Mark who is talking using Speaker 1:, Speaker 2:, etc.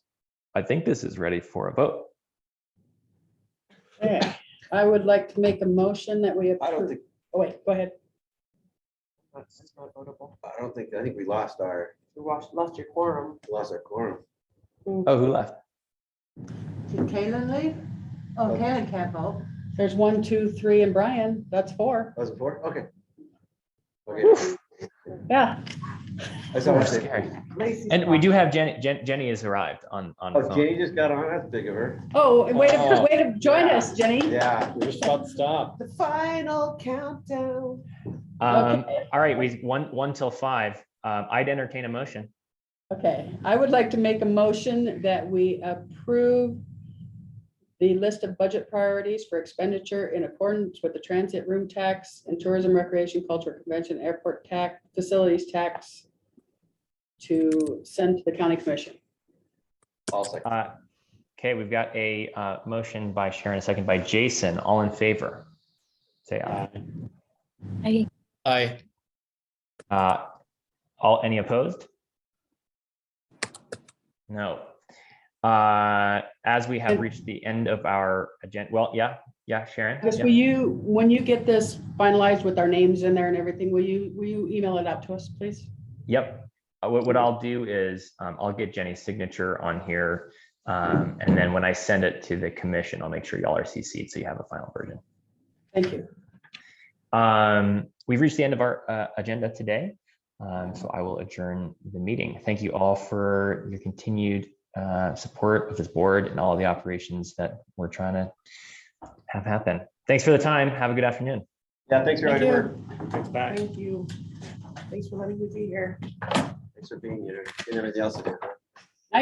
Speaker 1: I think this is ready for a vote.
Speaker 2: Okay, I would like to make a motion that we
Speaker 3: I don't
Speaker 2: approve.
Speaker 3: think,
Speaker 2: Oh, wait, go ahead.
Speaker 4: That's it's not votable.
Speaker 3: I don't think, I think we lost our,
Speaker 4: You lost, lost your quorum.
Speaker 3: lost our quorum.
Speaker 1: Oh, who left?
Speaker 5: Did Kaylin leave? Oh, Kaylin can't vote.
Speaker 2: There's one, two, three, and Brian, that's four.
Speaker 3: That was before, okay. Okay,
Speaker 2: Yeah,
Speaker 3: that's all I'm
Speaker 1: That's
Speaker 3: saying.
Speaker 1: scary. And we do have Jenny, Jen- Jenny has arrived on, on
Speaker 3: Oh,
Speaker 1: phone.
Speaker 3: Jenny just got on, that's big of her.
Speaker 2: oh, and way to,
Speaker 6: Oh,
Speaker 2: way to join us, Jenny.
Speaker 3: Yeah.
Speaker 6: We're just about to stop.
Speaker 4: The final countdown.
Speaker 1: Um,
Speaker 2: Okay.
Speaker 1: all right, we, one, one till five. Um, I'd entertain a motion.
Speaker 2: Okay, I would like to make a motion that we approve the list of budget priorities for expenditure in accordance with the transit room tax and tourism, recreation, culture, convention, airport tax, facilities tax to send to the county commission.
Speaker 3: All second.
Speaker 1: Uh, okay, we've got a, uh, motion by Sharon, a second by Jason, all in favor. Say aye.
Speaker 6: Aye.
Speaker 1: Uh, all, any opposed? No. Uh, as we have reached the end of our agenda, well, yeah, yeah, Sharon?
Speaker 2: Because
Speaker 1: yeah.
Speaker 2: will you, when you get this finalized with our names in there and everything, will you, will you email it out to us, please?
Speaker 1: Yep. Uh, What, what I'll do is, um, I'll get Jenny's signature on here. Um, and then when I send it to the commission, I'll make sure y'all are CC'd so you have a final version.
Speaker 2: Thank you.
Speaker 1: Um, we've reached the end of our, uh, agenda today. Um, so I will adjourn the meeting. Thank you all for your continued, uh, support of this board and all the operations that we're trying to have happen. Thanks for the time. Have a good afternoon.
Speaker 3: Yeah, thanks for
Speaker 2: Thank
Speaker 3: your
Speaker 2: you.
Speaker 3: work.
Speaker 1: Thanks, bye.
Speaker 4: Thank you. Thanks for letting me be here.
Speaker 3: Thanks for being here and everything else. you did.